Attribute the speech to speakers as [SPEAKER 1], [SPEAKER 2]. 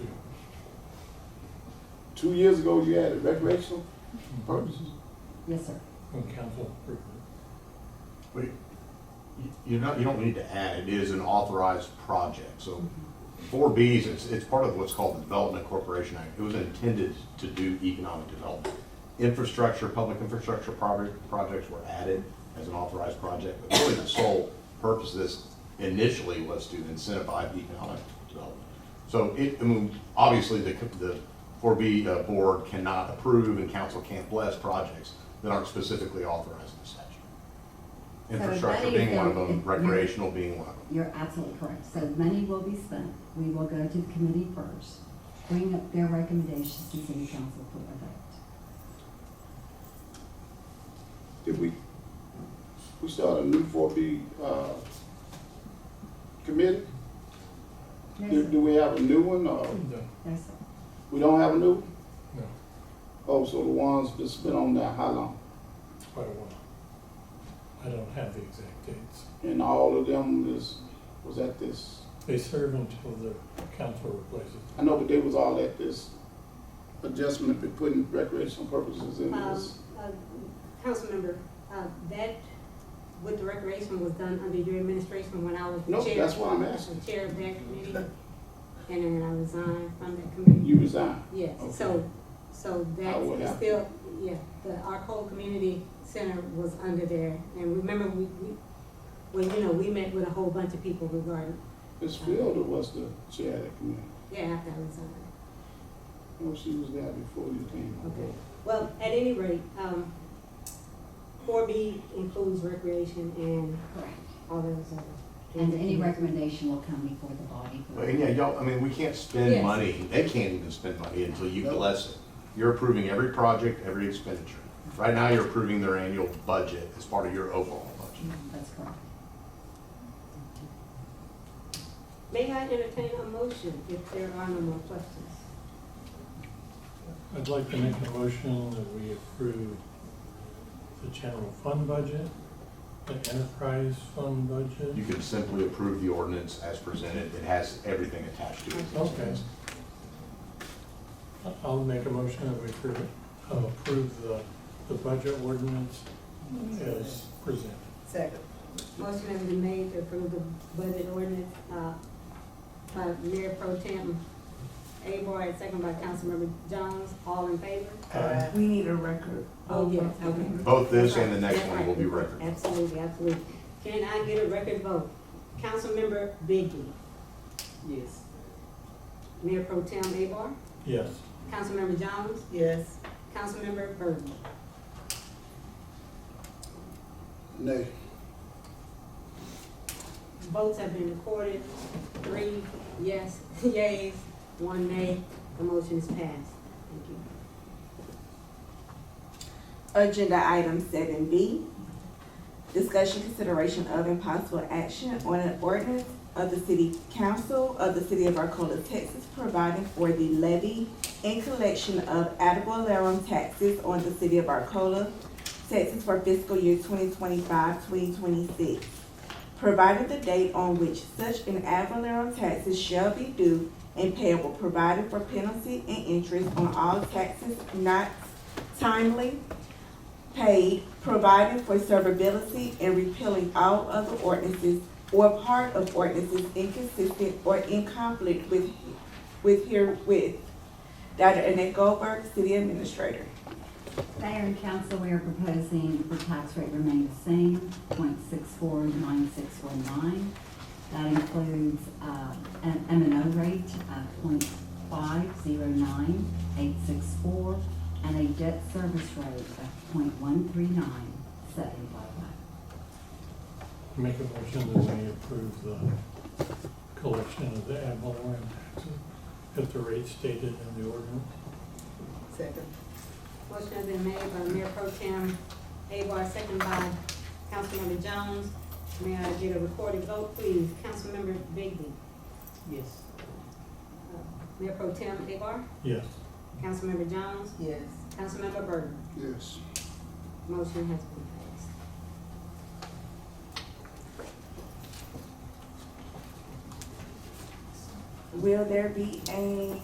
[SPEAKER 1] two years ago, you added recreational purposes.
[SPEAKER 2] Yes, sir.
[SPEAKER 3] on council approval.
[SPEAKER 4] But you- you're not, you don't need to add, it is an authorized project, so four Bs, it's, it's part of what's called the Development Corporation Act. It was intended to do economic development. Infrastructure, public infrastructure project, projects were added as an authorized project, but really the sole purpose of this initially was to incentivize economic development. So it, I mean, obviously, the, the four B, uh, board cannot approve and council can't bless projects that aren't specifically authorized in the statute.
[SPEAKER 2] So that
[SPEAKER 4] Infrastructure
[SPEAKER 2] is
[SPEAKER 4] being one of
[SPEAKER 2] a-
[SPEAKER 4] them, recreational being one of them.
[SPEAKER 2] You're absolutely correct. So money will be spent. We will go to the committee first, bring up their recommendations to city council for a vote.
[SPEAKER 1] Did we, we start a new four B, uh, committee?
[SPEAKER 2] Yes,
[SPEAKER 1] Do, do
[SPEAKER 2] sir.
[SPEAKER 1] we have a new one or
[SPEAKER 3] No,
[SPEAKER 2] Yes, sir.
[SPEAKER 1] we don't have a new? one?
[SPEAKER 3] no,
[SPEAKER 1] Oh, so the ones that's been on there, how long?
[SPEAKER 3] it's quite a while. I don't have the exact dates.
[SPEAKER 1] And all of them is, was at this,
[SPEAKER 3] They serve until the council replaces. them.
[SPEAKER 1] I know, but they was all at this adjustment, but putting recreational purposes in
[SPEAKER 5] Um,
[SPEAKER 1] this.
[SPEAKER 5] uh, Councilmember, uh, that, with the recreation was done under your administration when I was the
[SPEAKER 1] No,
[SPEAKER 5] chair.
[SPEAKER 1] that's what I'm asking.
[SPEAKER 5] the Chair of that committee, and then I resigned from that committee.
[SPEAKER 1] You resign.
[SPEAKER 5] Yes,
[SPEAKER 1] Okay.
[SPEAKER 5] so, so
[SPEAKER 1] I would
[SPEAKER 5] that's
[SPEAKER 1] have-
[SPEAKER 5] still, yeah, the, our whole community center was under there. And remember, we, we, well, you know, we met with a whole bunch of people regarding,
[SPEAKER 1] Ms.
[SPEAKER 5] uh,
[SPEAKER 1] Fielder was the chair of that committee.
[SPEAKER 5] yeah, after I resigned.
[SPEAKER 1] No, she was there before you came.
[SPEAKER 5] Okay. Well, at any rate, um, four B includes recreation and
[SPEAKER 2] Correct.
[SPEAKER 5] all those other.
[SPEAKER 2] And any recommendation will come before the body. for-
[SPEAKER 4] But yeah, y'all, I mean, we can't spend
[SPEAKER 5] Yes.
[SPEAKER 4] money, they can't even spend money until you bless it. You're approving every project, every expenditure. Right now, you're approving their annual budget as part of your overall budget.
[SPEAKER 2] That's correct.
[SPEAKER 5] May I entertain a motion if there are no more questions?
[SPEAKER 3] I'd like to make a motion that we approve the general fund budget, the enterprise fund
[SPEAKER 4] You
[SPEAKER 3] budget.
[SPEAKER 4] can simply approve the ordinance as presented, it has everything attached to it.
[SPEAKER 3] Okay. I'll make a motion that we approve, uh, approve the, the budget ordinance as presented.
[SPEAKER 6] Second.
[SPEAKER 5] Motion has been made to approve the budget ordinance, uh, by Mayor Pro Tem Abar and second by Councilmember Jones, all in favor?
[SPEAKER 3] Aye.
[SPEAKER 6] We need a record.
[SPEAKER 5] Oh, yes, okay.
[SPEAKER 4] Both this and the
[SPEAKER 5] That's
[SPEAKER 4] next
[SPEAKER 5] right.
[SPEAKER 4] one will be record.
[SPEAKER 5] Absolutely, absolutely. Can I get a record vote? Councilmember Biggie,
[SPEAKER 6] Yes.
[SPEAKER 5] Mayor Pro Tem Abar,
[SPEAKER 3] Yes,
[SPEAKER 5] Councilmember Jones,
[SPEAKER 6] Yes.
[SPEAKER 5] Councilmember Burton.
[SPEAKER 1] Nay.
[SPEAKER 5] Votes have been recorded, three yes, yays, one nay, the motion is passed. Thank you.
[SPEAKER 7] Agenda item seven B, discussion consideration of impossible action on an ordinance of the city council of the city of Arcola, Texas, providing for the levy and collection of ad valorem taxes on the city of Arcola, Texas for fiscal year 2025-2026, provided the date on which such an ad valorem taxes shall be due and payable, provided for penalty and interest on all taxes not timely paid, providing for severability and repealing all other ordinances or part of ordinances inconsistent or in conflict with, with herewith. Dr. Annette Goldberg, City Administrator.
[SPEAKER 2] Mayor and council, we are proposing the tax rate remain the same, point six four nine six four nine. That includes, uh, an M and O rate uh, of point five zero nine eight six four and a debt service rate of point one three nine seven five five.
[SPEAKER 3] make a motion that we approve the collection of the ad valorem taxes at the rate stated in the ordinance.
[SPEAKER 6] Second.
[SPEAKER 5] Motion has been made by Mayor Pro Tem Abar, second by Councilmember Jones. May I get a recorded vote, please? Councilmember Bigby,
[SPEAKER 6] Yes.
[SPEAKER 5] uh, Mayor Pro Tem Abar,
[SPEAKER 3] Yes,
[SPEAKER 5] Councilmember Jones,
[SPEAKER 6] Yes.
[SPEAKER 5] Councilmember Burton.
[SPEAKER 1] Yes.
[SPEAKER 5] Motion has been passed.
[SPEAKER 7] Will there be a